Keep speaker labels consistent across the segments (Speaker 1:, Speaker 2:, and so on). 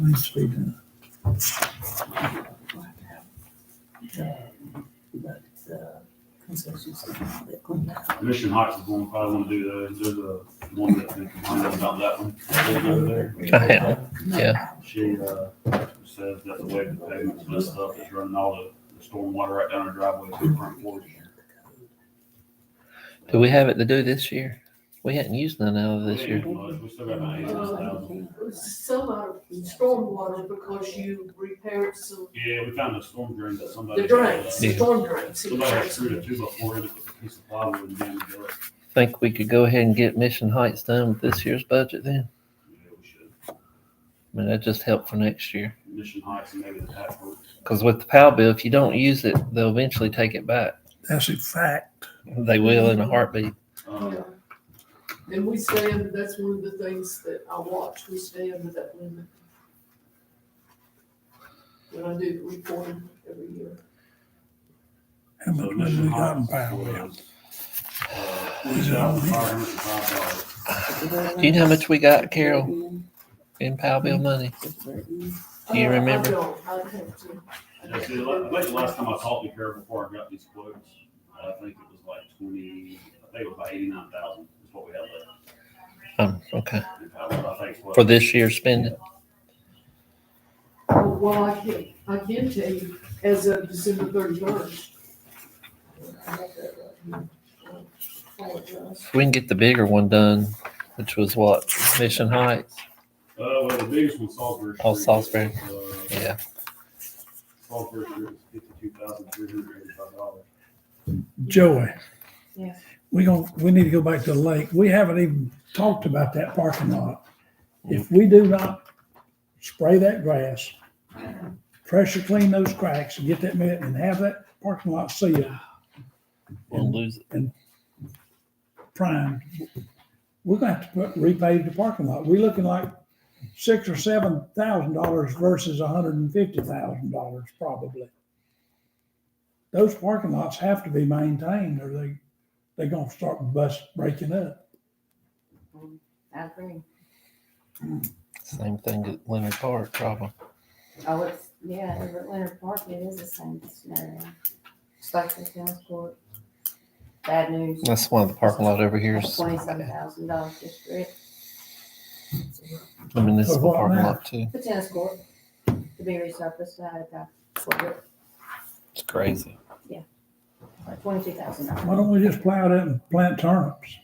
Speaker 1: needs to be done.
Speaker 2: Mission Heights is one, probably wanna do the, do the one that, I know about that one. Lady over there.
Speaker 3: Yeah.
Speaker 2: She, uh, says that the way the pavement's messed up, it's running all the, the stormwater right down her driveway to the front porch.
Speaker 3: Do we have it to do this year? We hadn't used none out of this
Speaker 2: We
Speaker 3: year.
Speaker 2: ain't much. We still got about eight hundred thousand.
Speaker 4: Some out of stormwater because you repaired some,
Speaker 2: Yeah, we found a storm drain that somebody. uh,
Speaker 4: the drains,
Speaker 3: Yeah.
Speaker 4: the storm drains.
Speaker 2: Somebody had screwed a two by four in it with a piece of plywood and damaged it.
Speaker 3: Think we could go ahead and get Mission Heights done with this year's budget then?
Speaker 2: Yeah, we should.
Speaker 3: I mean, that just helped for next year.
Speaker 2: Mission Heights and maybe the half roof.
Speaker 3: Because with the POW bill, if you don't use it, they'll eventually take it back.
Speaker 1: That's a fact.
Speaker 3: They will in a heartbeat.
Speaker 2: Um,
Speaker 4: And we stay under, that's one of the things that I watch, we stay under that limit. When I do the reporting every year.
Speaker 1: How
Speaker 2: So
Speaker 1: much money
Speaker 2: Mission
Speaker 1: we got in
Speaker 2: Heights
Speaker 1: power bill?
Speaker 2: was, uh, $20,505.
Speaker 3: Do you know how much we got, Carol, in POW bill money? Do you
Speaker 4: Uh,
Speaker 3: remember?
Speaker 4: I don't, I'd have to.
Speaker 2: Yeah, see, the la- I think the last time I talked to Kara before I got these quotes, I think it was like twenty, I think it was about eighty-nine thousand is what we had left.
Speaker 3: Um, okay.
Speaker 2: And I was- I think it's what- Uh,
Speaker 3: For this year's spending?
Speaker 4: Oh, Well, I can, I can tell you, as of December thirty-first.
Speaker 3: We can get the bigger one done, which was what? Mission Heights?
Speaker 2: Uh, well, the biggest one, Salisbury.
Speaker 3: Oh,
Speaker 2: Street,
Speaker 3: Salisbury.
Speaker 2: was, uh,
Speaker 3: Yeah.
Speaker 2: Salisbury Street was fifty-two thousand three hundred eighty-five dollars.
Speaker 1: Joey.
Speaker 5: Yes.
Speaker 1: We gonna, we need to go back to the lake. We haven't even talked about that parking lot. If we do not spray that grass, pressure clean those cracks and get that met and have that parking lot sealed,
Speaker 3: We'll lose it.
Speaker 1: prime, we're gonna have to put, repave the parking lot. We're looking like six or seven thousand dollars versus a hundred and fifty thousand dollars probably. Those parking lots have to be maintained or they, they're gonna start bust breaking up.
Speaker 5: I agree.
Speaker 3: Same thing at Leonard Park, probably.
Speaker 5: Oh, it's, yeah, over at Leonard Park, it is the same scenario. It's like the tennis court. Bad news.
Speaker 3: That's one of the parking lot over here. is-
Speaker 5: Twenty-seven thousand dollars just for it.
Speaker 3: The municipal
Speaker 1: For what
Speaker 3: parking
Speaker 1: now?
Speaker 3: lot too.
Speaker 5: The tennis court, to be resurfaced, I had got for
Speaker 3: It's crazy.
Speaker 5: twenty-two thousand dollars.
Speaker 1: Why don't we just plow it up and plant turnips?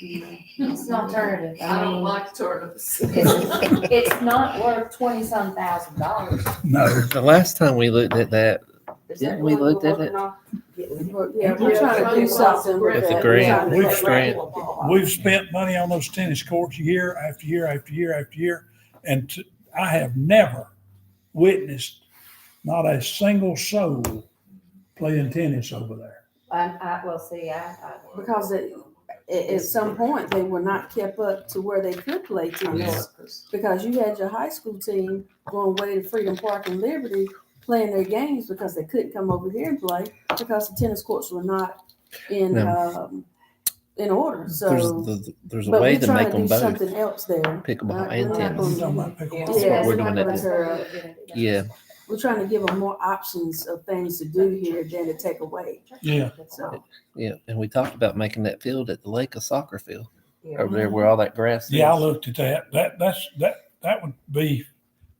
Speaker 5: It's an alternative.
Speaker 4: I don't
Speaker 5: mean,
Speaker 4: like turnips.
Speaker 5: It's, it's not worth twenty-some thousand dollars.
Speaker 1: No.
Speaker 3: The last time we looked at that,
Speaker 5: Is
Speaker 3: Didn't
Speaker 5: that
Speaker 3: we
Speaker 5: what we're
Speaker 3: look at it?
Speaker 5: working on?
Speaker 6: Yeah, we're trying to do something with
Speaker 3: With
Speaker 6: that.
Speaker 3: the grant.
Speaker 1: We've
Speaker 3: grant.
Speaker 1: We've spent money on those tennis courts year after year after year after year, and t- I have never witnessed not a single soul playing tennis over there.
Speaker 5: Um, I, well, see, I, I,
Speaker 6: Because at, at, at some point, they were not kept up to where they could play tennis. Because you had your high school team going way to Freedom Park and Liberty playing their games because they couldn't come over here and play because the tennis courts were not in,
Speaker 3: No.
Speaker 6: um, in order,
Speaker 3: there's,
Speaker 6: so.
Speaker 3: the- there's a
Speaker 6: But
Speaker 3: way
Speaker 6: we're
Speaker 3: to make
Speaker 6: trying to
Speaker 3: them
Speaker 6: do
Speaker 3: both
Speaker 6: something else there.
Speaker 3: pickleball
Speaker 6: Uh,
Speaker 3: and
Speaker 6: we're not
Speaker 3: tennis.
Speaker 1: You talking about
Speaker 3: That's
Speaker 1: pickleball?
Speaker 3: what we're
Speaker 6: Yeah, it's
Speaker 3: doing
Speaker 6: not
Speaker 3: at
Speaker 6: gonna
Speaker 3: this-
Speaker 6: tear up.
Speaker 3: Yeah,
Speaker 6: We're trying to give them more options of things to do here than to take away,
Speaker 1: Yeah.
Speaker 6: so.
Speaker 3: yeah. And we talked about making that field at the lake a soccer field
Speaker 5: Yeah.
Speaker 3: over there where all that grass is.
Speaker 1: Yeah, I looked at that. That, that's, that, that would be,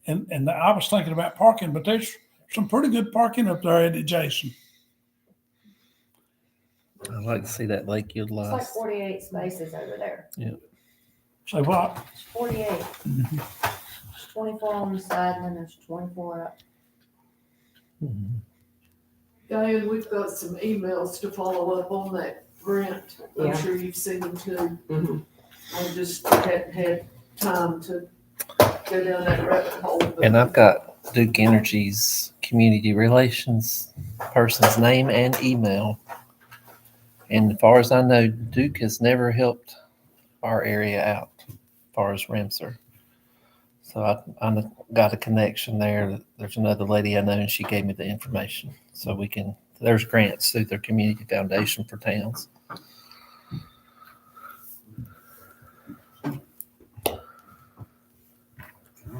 Speaker 1: and, and I was thinking about parking, but there's some pretty good parking up there at Jason.
Speaker 3: I'd like to see that lake
Speaker 5: It's like
Speaker 3: utilized.
Speaker 5: forty-eight spaces over there,
Speaker 1: Say what?
Speaker 5: forty-eight.
Speaker 3: Mm-hmm.
Speaker 5: There's Twenty-four on the side and then there's twenty-four up.
Speaker 3: Mhm.
Speaker 4: Diane, we've got some emails to follow up on that grant. I'm
Speaker 5: Yeah.
Speaker 4: sure you've seen them too.
Speaker 5: Mhm.
Speaker 4: I just hadn't had time to go down that rabbit hole. but-
Speaker 3: And I've got Duke Energy's community relations person's name and email. And as far as I know, Duke has never helped our area out, as far as Remser. So I, I got a connection there. There's another lady I know, and she gave me the information. So we can, there's grants through their community foundation for towns.